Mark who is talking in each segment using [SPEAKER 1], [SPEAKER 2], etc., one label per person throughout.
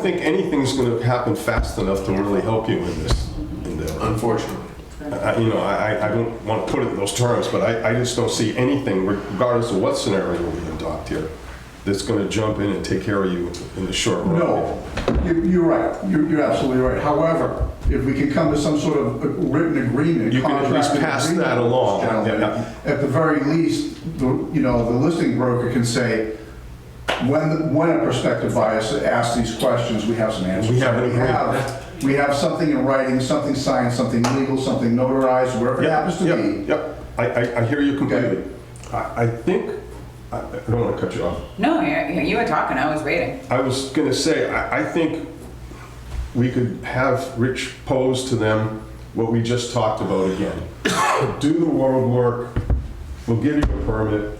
[SPEAKER 1] I think anything's going to happen fast enough to really help you in this endeavor.
[SPEAKER 2] unfortunately.
[SPEAKER 1] I- I- You know, I, I- I don't want to put it in those terms, but I, I just don't see anything, regardless of what scenario we adopt here, that's going to jump in and take care of you in the short run.
[SPEAKER 3] No, you- you're right. You're you're absolutely right. However, if we could come to some sort of written agreement.
[SPEAKER 1] You can at least
[SPEAKER 3] contract
[SPEAKER 1] pass
[SPEAKER 3] agreement
[SPEAKER 1] that
[SPEAKER 3] with this
[SPEAKER 1] along.
[SPEAKER 3] gentleman,
[SPEAKER 1] Yeah.
[SPEAKER 3] At the very least, the- you know, the listing broker can say, when, when a prospective buyer asks these questions, we have some answers.
[SPEAKER 1] We have an agreement.
[SPEAKER 3] have- We have something in writing, something signed, something legal, something notarized, wherever it
[SPEAKER 1] Yep,
[SPEAKER 3] happens to
[SPEAKER 1] yep,
[SPEAKER 3] be.
[SPEAKER 1] Yep, I, I, I hear you completely. I, I think, I I don't want to cut you off.
[SPEAKER 4] No, you you were talking, I was waiting.
[SPEAKER 1] I was gonna say, I, I think we could have Rich pose to them what we just talked about again. Do the world work, we'll give you a permit,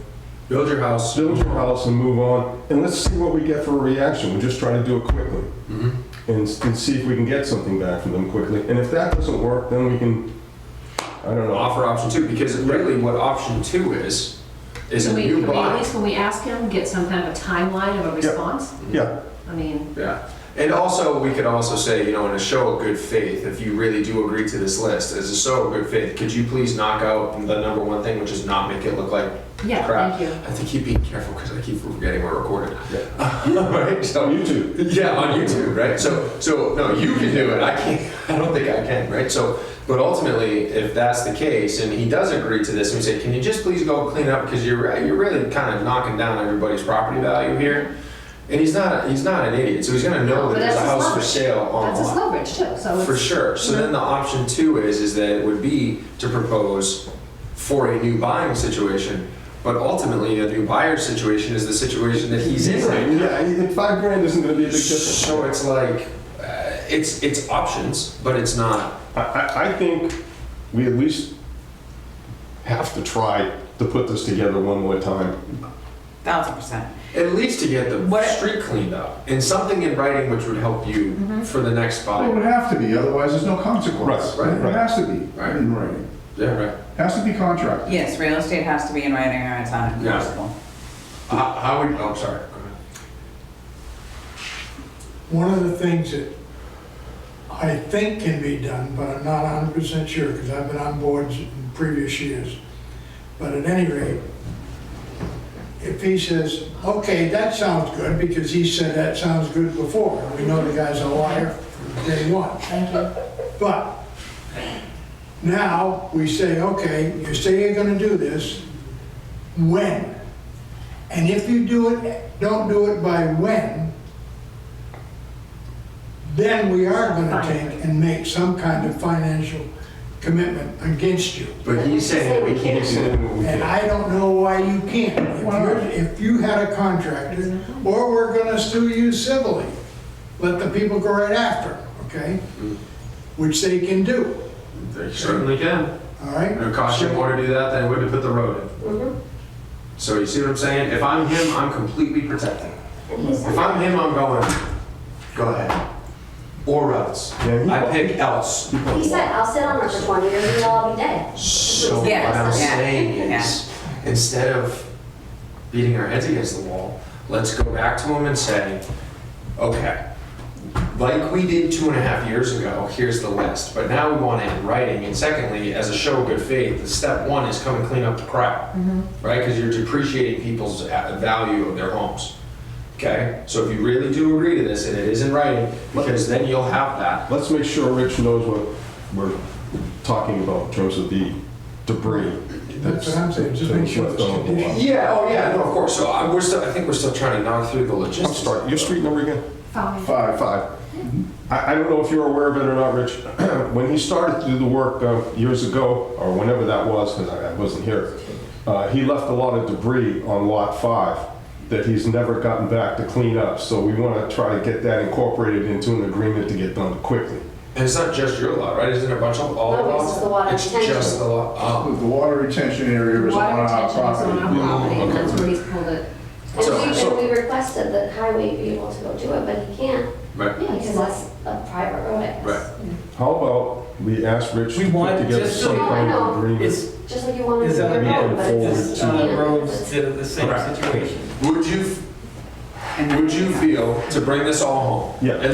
[SPEAKER 2] Build your house.
[SPEAKER 1] build your house and move on, and let's see what we get for a reaction, we're just trying to do it quickly.
[SPEAKER 2] Mm-hmm.
[SPEAKER 1] And, s- and see if we can get something back from them quickly, and if that doesn't work, then we can, I don't know.
[SPEAKER 2] Offer option two, because really what option two is, is a
[SPEAKER 5] Can we, can
[SPEAKER 2] new
[SPEAKER 5] we at
[SPEAKER 2] buy.
[SPEAKER 5] least when we ask him, get some kind of a timeline of a response?
[SPEAKER 1] Yeah,
[SPEAKER 5] I mean,
[SPEAKER 2] Yeah. And also, we could also say, you know, in a show of good faith, if you really do agree to this list, as a show of good faith, could you please knock out the number one thing, which is not make it look like
[SPEAKER 5] Yeah,
[SPEAKER 2] crap?
[SPEAKER 5] thank you.
[SPEAKER 2] I think you being careful because I keep forgetting we're recorded. right? So,
[SPEAKER 1] on YouTube.
[SPEAKER 2] Yeah, on YouTube, right? So, so no, you can do it. I can't. I don't think I can, right? So, but ultimately, if that's the case, and he does agree to this, and we say, can you just please go clean up because you're re- you're really kind of knocking down everybody's property value here. And he's not he's not an idiot, so he's gonna know that
[SPEAKER 5] But
[SPEAKER 2] there's a
[SPEAKER 5] that's his
[SPEAKER 2] house for
[SPEAKER 5] leverage.
[SPEAKER 2] sale on
[SPEAKER 5] that's
[SPEAKER 2] the
[SPEAKER 5] his
[SPEAKER 2] lot.
[SPEAKER 5] leverage too, so
[SPEAKER 2] For
[SPEAKER 5] it's,
[SPEAKER 2] sure. So then the option two is, is that it would be to propose for a new buying situation. But ultimately, a new buyer situation is the situation that he's in right now.
[SPEAKER 1] Yeah, five grand isn't gonna be a big difference.
[SPEAKER 2] So it's like, uh, it's, it's options, but it's not.
[SPEAKER 1] I, I, I think we at least have to try to put this together one more time.
[SPEAKER 4] Thousand percent.
[SPEAKER 2] At least to get the
[SPEAKER 4] What-
[SPEAKER 2] street cleaned up and something in writing which would help
[SPEAKER 6] Mm-hmm.
[SPEAKER 2] you for the next
[SPEAKER 3] Well, It
[SPEAKER 2] buyer.
[SPEAKER 3] would have to be, otherwise there's no consequence.
[SPEAKER 1] Right, right,
[SPEAKER 3] It
[SPEAKER 1] right.
[SPEAKER 3] has to be
[SPEAKER 2] Right.
[SPEAKER 3] in writing.
[SPEAKER 2] Yeah, right.
[SPEAKER 3] Has to be contracted.
[SPEAKER 4] Yes, real estate has to be in writing or it's not
[SPEAKER 2] Yeah.
[SPEAKER 4] enforceable.
[SPEAKER 2] How, how would, oh, sorry. Go ahead.
[SPEAKER 6] One of the things that I think can be done, but I'm not hundred percent sure, because I've been on boards in previous years. But at any rate, if he says, okay, that sounds good, because he said that sounds good before, and we know the guy's a liar from day one.
[SPEAKER 5] thank you.
[SPEAKER 6] But now we say, okay, you say you're gonna do this, when? And if you do it, don't do it by when, then we are gonna take and make some kind of financial commitment against you.
[SPEAKER 2] But he's saying that we can't do that.
[SPEAKER 6] And I don't know why you can't. If you're, if you had a contractor, or we're gonna sue you civilly, let the people go right after, okay? Which they can do,
[SPEAKER 2] They certainly can.
[SPEAKER 6] all
[SPEAKER 2] It
[SPEAKER 6] right?
[SPEAKER 2] would cost you more to do that than it would to put the road in.
[SPEAKER 6] Mm-hmm.
[SPEAKER 2] So you see what I'm saying? If I'm him, I'm completely protected. If I'm him, I'm going, go ahead. Or else.
[SPEAKER 1] Yeah, he-
[SPEAKER 2] I pick else.
[SPEAKER 7] He said, I'll sit on it for 20 years and I'll be dead.
[SPEAKER 2] So what
[SPEAKER 4] Yeah,
[SPEAKER 2] I'm
[SPEAKER 4] yeah,
[SPEAKER 2] saying
[SPEAKER 4] yeah.
[SPEAKER 2] is, instead of beating our heads against the wall, let's go back to him and say, okay, like we did two and a half years ago, here's the list. But now we want it in writing. And secondly, as a show of good faith, the step one is come and clean up the crap,
[SPEAKER 4] Mm-hmm.
[SPEAKER 2] right? Because you're depreciating people's a- value of their homes. Okay, so if you really do agree to this, and it is in writing, because then you'll have that.
[SPEAKER 1] Let's make sure Rich knows what we're talking about in terms of the debris.
[SPEAKER 6] That's what I'm saying, just make sure it's
[SPEAKER 1] left on the lot.
[SPEAKER 2] Yeah, oh yeah, no, of course. So I, we're still, I think we're still trying to knock through the
[SPEAKER 1] I'll
[SPEAKER 2] logistics.
[SPEAKER 1] start, your street number again?
[SPEAKER 5] Fine.
[SPEAKER 1] Five. Five. I, I don't know if you're aware of it or not, Rich. When he started to do the work uh, years ago, or whenever that was, because I I wasn't here, uh, he left a lot of debris on Lot 5 that he's never gotten back to clean up. So we want to try to get that incorporated into an agreement to get done quickly.
[SPEAKER 2] And it's not just your lot, right? Isn't it a bunch of all
[SPEAKER 7] No,
[SPEAKER 2] lots?
[SPEAKER 7] this is the water
[SPEAKER 2] It's
[SPEAKER 7] retention.
[SPEAKER 2] just the lot. Oh.
[SPEAKER 3] The water retention area is on
[SPEAKER 5] Water
[SPEAKER 3] our
[SPEAKER 5] retention is on
[SPEAKER 3] property.
[SPEAKER 5] our property, and
[SPEAKER 1] okay.
[SPEAKER 5] that's where he's pulled it.
[SPEAKER 7] And
[SPEAKER 2] So-
[SPEAKER 7] we,
[SPEAKER 2] so-
[SPEAKER 7] and we requested that highway be able to go do it, but he can't
[SPEAKER 2] Right.
[SPEAKER 7] because that's a private road, I guess.
[SPEAKER 2] Right.
[SPEAKER 1] How about we ask Rich
[SPEAKER 8] We
[SPEAKER 1] to put
[SPEAKER 8] want-
[SPEAKER 1] together
[SPEAKER 8] just
[SPEAKER 1] some
[SPEAKER 7] so-
[SPEAKER 1] kind
[SPEAKER 7] No, I
[SPEAKER 1] of
[SPEAKER 7] know.
[SPEAKER 1] agreement?
[SPEAKER 8] Is,
[SPEAKER 7] Just like you wanted to
[SPEAKER 8] is
[SPEAKER 7] do
[SPEAKER 8] other
[SPEAKER 7] it now,
[SPEAKER 1] going
[SPEAKER 7] but
[SPEAKER 1] forward
[SPEAKER 7] it's
[SPEAKER 8] is,
[SPEAKER 7] just
[SPEAKER 1] to-
[SPEAKER 8] uh,
[SPEAKER 7] can't.
[SPEAKER 8] roads the, the same
[SPEAKER 2] Correct.
[SPEAKER 8] situation?
[SPEAKER 2] Would you
[SPEAKER 4] And then
[SPEAKER 2] would
[SPEAKER 4] we
[SPEAKER 2] you
[SPEAKER 4] have-
[SPEAKER 2] feel to bring this all home?
[SPEAKER 1] Yeah.
[SPEAKER 2] And